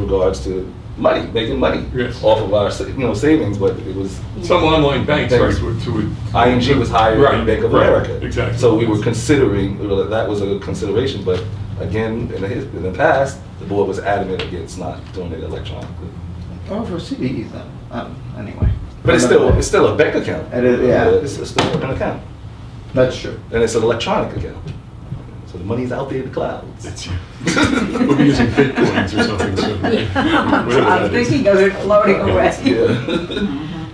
regards to money, making money Yes. off of our, sa- you know, savings, but it was, Some online banks They- are to, to. ING was higher than Right, Bank of right, America. Exactly. So we were considering, we were like, that was a consideration, but again, in the, his- in the past, the board was adamant against not doing it electronically. Oh, for CDs then. Um, anyway. But it's still, it's still a bank account. It is, yeah. It's it's still an account, That's true. and it's an electronic account. So the money's out there in the clouds. That's- We'll be using bitcoins or something soon. Whatever I'm that is. thinking of it floating away. Yeah.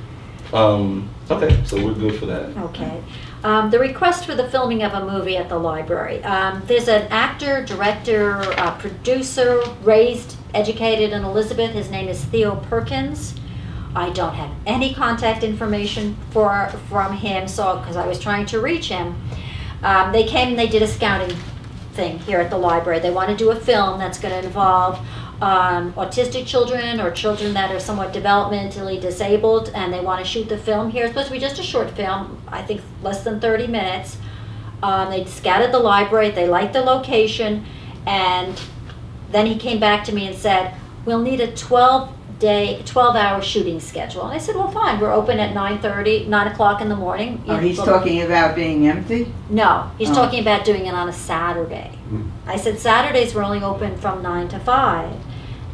Um, okay, so we're good for that. Okay. Um, the request for the filming of a movie at the library. Um, there's an actor, director, uh, producer, raised, educated in Elizabeth. His name is Theo Perkins. I don't have any contact information for from him, so because I was trying to reach him, um, they came and they did a scouting thing here at the library. They want to do a film that's going to involve um, autistic children or children that are somewhat developmentally disabled, and they want to shoot the film here. It's supposed to be just a short film, I think less than 30 minutes. Um, they scouted the library, they liked the location, and then he came back to me and said, "We'll need a 12 day, 12 hour shooting schedule." And I said, "Well, fine. We're open at 9:30, 9 o'clock in the morning." Oh, You- he's talking about being empty? No, he's Oh. talking about doing it on a Saturday. Hmm. I said Saturdays were only open from nine to five.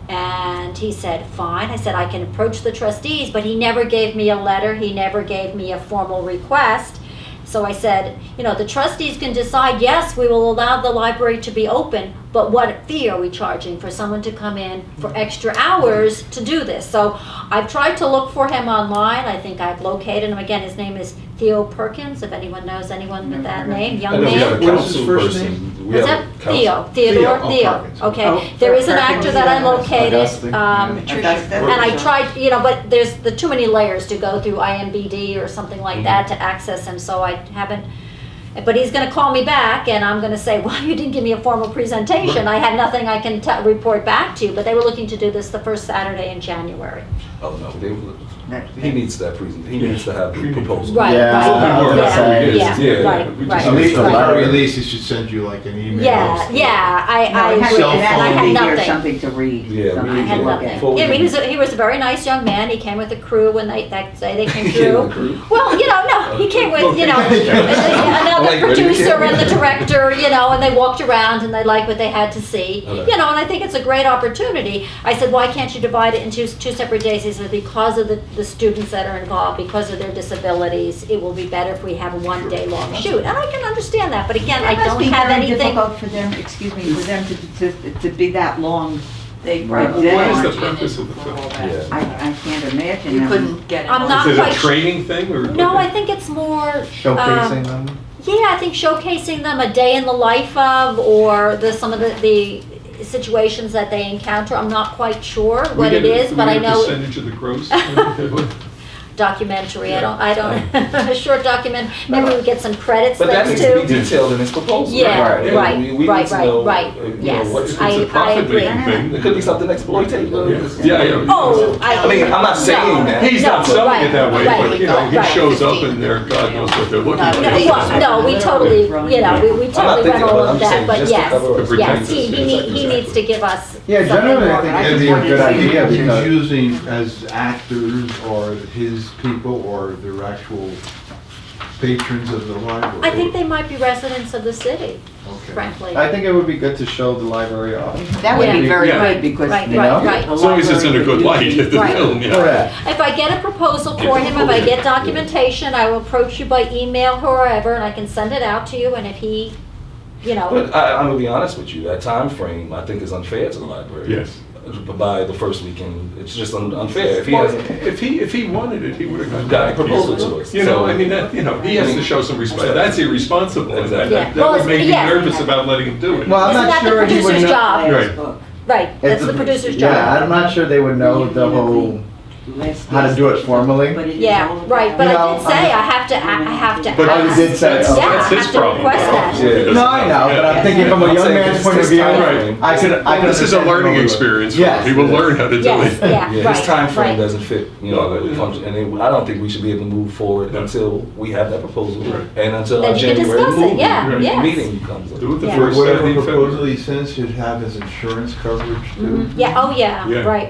And he said, fine. I said, I can approach the trustees, but he never gave me a letter. He never gave me a formal request. So I said, you know, the trustees can decide, yes, we will allow the library to be open, but what fee are we charging for someone to come in for extra hours to do this? So I've tried to look for him online. I think I've located him. Again, his name is Theo Perkins, if anyone knows anyone with that name, I young know we have man. a What is council his first person. We What's have a that? council- Theo, Theodore, oh, Theo. Perkins. Oh, Okay, there is an Perkins, actor that I yes. located, Augustine, um, yeah. That's- that's- and I tried, you know, but there's the too many layers to go through IMBD or something like that to access him, so I haven't. But he's gonna call me back and I'm gonna say, well, you didn't give me a formal presentation. I had nothing I can te- report back to you, but they were looking to do this the first Saturday in January. Oh, no, they, he needs that present, he needs to have the proposal. Right, Yeah, right. I was gonna yeah, say, yeah, yeah, right, we just- right. At least the right. Larry Lee. he should send you like an email. Yeah, yeah, I, I. No, Cell it had phone. to be I had there, nothing. Something to read. Yeah, we something need I had to look nothing. at. Full- Yeah, I mean, he was, a, he was a very nice young man. He came with a crew when they that day they came through. Well, you know, no, he came with you know another Like, ready to producer go. and the director, you know, and they walked around and they liked what they had to see, Okay. you know, and I think it's a great opportunity. I said, why can't you divide it into two separate days? He said, because of the, the students that are involved, because of their disabilities, it will be better if we have a one day long shoot. And I can understand that, but again, I It must don't be have very anything. difficult for them, excuse me, for them to, to, to be that long. They probably What is did. the purpose of the film? Yeah. I, I can't imagine. You them. couldn't get it. I'm all. not Is it quite a sure. training thing or? No, I think it's more um, Showcasing them. Yeah, I think showcasing them a day in the life of, or the, some of the, the situations that they encounter. I'm not quite sure We what get it a- is, we but get I a know Percentage of the gross. documentary. I don't, I don't, a short document. Maybe we get some credits But that things needs to be too. detailed in his proposal. Yeah, You know, right, we- we need right, to right, know, right, uh, you know, yes. what's- It's a I- I profit agree. making thing. It could be something exploitative. Yeah, yeah, yeah. Oh, I. I mean, I'm not saying that. He's not No, selling right, it that way, but you know, right, he right. shows up and they're, God knows what they're looking No, for. well, no, we totally, you know, we, I'm we not totally thinking went all about, it, I'm of saying that, but just to yes, cover. To protect yes, us. he, he need- he needs to give us something more. Yeah, generally, I think it'd be a good idea He's because using as actors or his people or their actual patrons of the library. I think they might be residents of the city, Okay. frankly. I think it would be good to show the library off. That would be Yeah. very Yeah. good because. Right, the- right, right. the As long as it's in a library good could light, use the it. Right. film, yeah. Correct. If I get a proposal for him, if I get documentation, I will approach you by email, whoever, and I can send it out to you, and if he, you know, But I, I'm gonna be honest with you, that time frame I think is unfair to the library. Yes. By the first weekend, it's just un- unfair. If he Well, has, If he, if he wanted it, he would have gotten. Got a back to you. proposal to us. You know, I mean, that, you know, he has to show some respect. That's irresponsible. and that- Yeah. That that Well, would make me yeah. nervous about letting him do it. Well, I'm isn't not that the sure he would producer's know- job? Right. Book. Right, that's the producer's Yeah, job. I'm not sure they would know the whole last. How to do it formally? But it is all Yeah, about- right, but I did No, say I'm- I have to, a- I have to ask. But you did say, oh, Yeah, I that's his have to problem. request that. He doesn't No, I know, but I'm thinking from a young man's point of view, Right. I could, I could. This is a understand learning more. experience for Yes. him. He will learn how to do it. Yes, yeah, Yeah, right. his time frame right. doesn't fit, you know, No, the yeah. function, and it- I don't think we should be able to move forward No. until we have that proposal Right. and until Then our you can January discuss it, move- yeah, right, yes. meeting comes up. Do it the Yeah. first Whatever Saturday in February. proposal he sends should have his insurance coverage too. Mhm. Yeah, oh, yeah, Yeah. right,